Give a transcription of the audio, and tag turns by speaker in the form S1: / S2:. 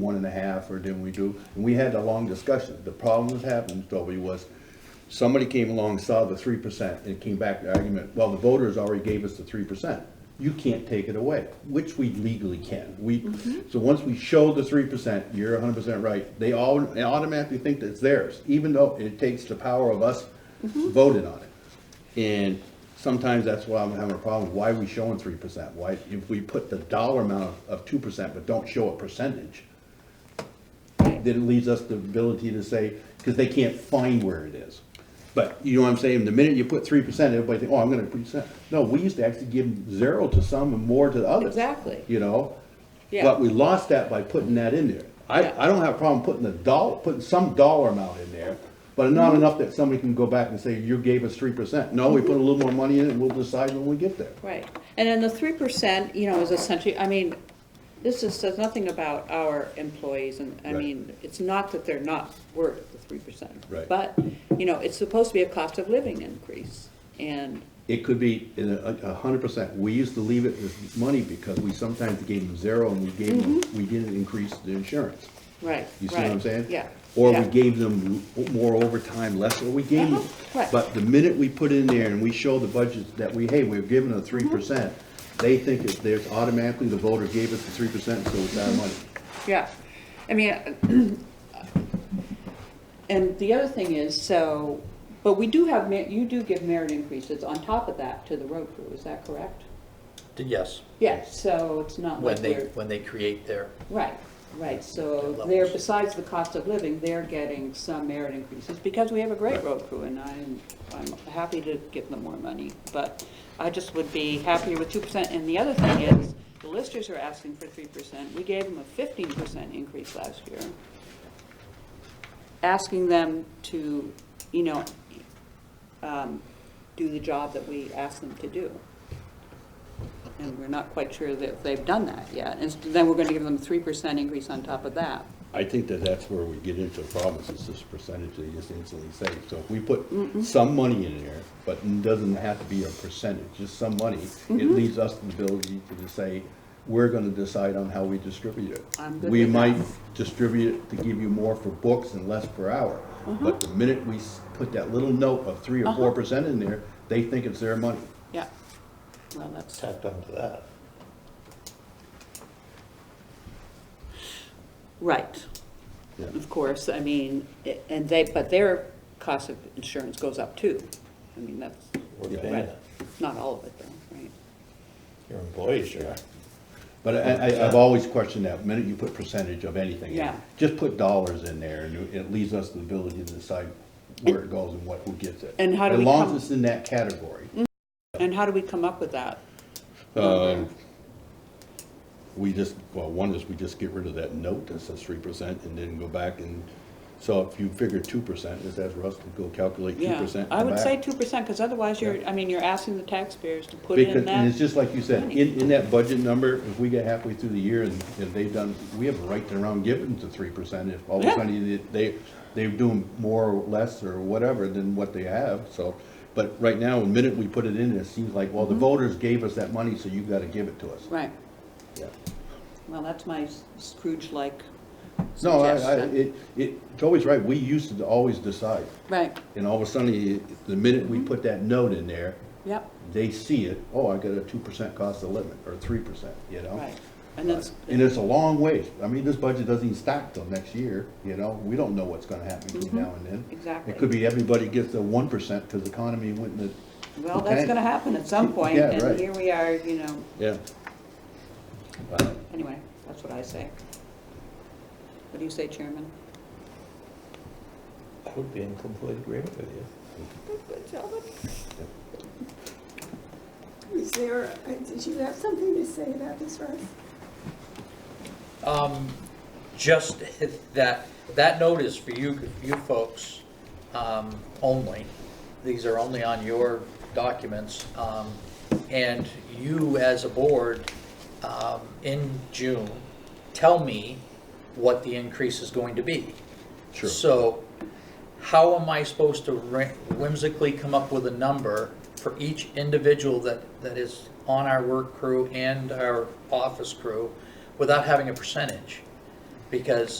S1: one and a half, or didn't we do? And we had a long discussion. The problem that happened, Toby, was somebody came along, saw the three percent, and came back with the argument, well, the voters already gave us the three percent. You can't take it away, which we legally can. We, so once we show the three percent, you're hundred percent right. They all they automatically think that it's theirs, even though it takes the power of us voting on it. And sometimes that's why I'm having a problem, why are we showing three percent? Why, if we put the dollar amount of two percent but don't show a percentage, then it leaves us the ability to say, because they can't find where it is. But you know what I'm saying, the minute you put three percent, everybody think, oh, I'm gonna percent. No, we used to actually give zero to some and more to the others.
S2: Exactly.
S1: You know?
S2: Yeah.
S1: But we lost that by putting that in there.
S2: Yeah.
S1: I, I don't have a problem putting the dollar, putting some dollar amount in there, but
S2: Mm-hmm.
S1: not enough that somebody can go back and say, you gave us three percent. No, we put a little more money in it, we'll decide when we get there.
S2: Right, and then the three percent, you know, is essentially, I mean, this is, says nothing about our employees, and, I
S1: Right.
S2: mean, it's not that they're not worth the three percent.
S1: Right.
S2: But, you know, it's supposed to be a cost of living increase, and,
S1: It could be in a, a hundred percent. We used to leave it as money because we sometimes gave them zero and we gave them, we didn't increase the insurance.
S2: right,
S1: You see what I'm
S2: Mm-hmm. right,
S1: saying?
S2: Yeah.
S1: Or we
S2: yeah.
S1: gave them more overtime, less, or we gave them.
S2: Uh-huh, right.
S1: But the minute we put in there and we show the budgets that we, hey, we've given a
S2: Mm-hmm.
S1: three percent, they think that there's automatically the voter gave us the three percent, so it's
S2: Mm-hmm.
S1: our money.
S2: Yeah, I mean, and the other thing is, so, but we do have, mer- you do give merit increases on top of that to the road crew, is that correct?
S3: Yes,
S2: Yeah, so it's not like
S3: when they,
S2: we're.
S3: when they create their,
S2: Right, right, so
S3: Their
S2: they're,
S3: levels.
S2: besides the cost of living, they're getting some merit increases, because we have a great
S1: Right.
S2: road crew, and I'm, I'm happy to give them more money, but I just would be happier with two percent, and the other thing is, the listers are asking for three percent, we gave them a fifteen percent increase last year. Asking them to, you know, um, do the job that we asked them to do. And we're not quite sure that they've done that yet. And then we're going to give them a 3% increase on top of that.
S1: I think that that's where we get into problems, is this percentage they just instantly say. So if we put some money in there, but it doesn't have to be a percentage, just some money, it
S2: Mm-hmm.
S1: leaves us the ability to just say, we're gonna decide on how we distribute it.
S2: I'm good
S1: We
S2: with
S1: might
S2: that.
S1: distribute it to give you more for books and less per hour.
S2: Uh-huh.
S1: But the minute we s- put that little note of three or four percent in there, they think it's their money.
S2: Yeah. Well, that's,
S3: tacked onto that.
S2: right.
S1: Yeah.
S2: Of course, I mean, i- and they, but their cost of insurance goes up too. I mean, that's,
S3: We're
S1: Yeah.
S3: paying
S2: right.
S3: it.
S2: Not all of it though, right?
S3: Your employees are.
S1: But I, I, I've always questioned that, minute you put percentage of anything in,
S2: Yeah.
S1: just put dollars in there, and it leaves us the ability to decide where it goes and what, who gets it.
S2: And how do we
S1: As long
S2: come-
S1: as it's in that category,
S2: And how do we come up with that?
S1: we just, well, one is we just get rid of that note that says three percent, and then go back and, so if you figure two percent, is that for us to go calculate two
S2: Yeah,
S1: percent?
S2: I would say 2% because otherwise you're, I mean, you're asking the taxpayers to put
S1: Because,
S2: in
S1: and it's
S2: that.
S1: just like you said, in, in that budget number, if we get halfway through the year and, and they've done, we have a right to around give them to three percent if all of a
S2: Yeah.
S1: sudden they, they're doing more or less or whatever than what they have, so. But right now, the minute we put it in, it seems like, well, the voters gave us that money, so you gotta give it to us.
S2: Mm-hmm. Right.
S1: Yeah.
S2: Well, that's my Scrooge-like
S1: No, I, I,
S2: suggestion.
S1: it, it, Toby's right, we used to always decide,
S2: Right,
S1: and all of a sudden, the minute
S2: Mm-hmm.
S1: we put that note in there,
S2: yep,
S1: they see it, oh, I got a two percent cost of living, or three percent, you know?
S2: right. And that's,
S1: And it's a long ways. I mean, this budget doesn't even start till next year, you know? We don't know what's gonna happen between now and then.
S2: Exactly.
S1: It could be everybody gets a one percent because the economy went in the.
S2: well, that's gonna happen at some point,
S1: Yeah,
S2: and
S1: right.
S2: here we are, you know,
S1: Yeah.
S2: anyway, that's what I say. What do you say, Chairman?
S3: I would be in complete agreement with you.
S4: Is there, uh, did you have something to say about this, Russ?
S5: Um, just that, that note is for you, you folks, um, only. These are only on your documents. Um, and you as a board, um, in June, tell me what the increase is going to be.
S1: Sure.
S5: So how am I supposed to ra- whimsically come up with a number for each individual that, that is on our work crew and our office crew without having a percentage? because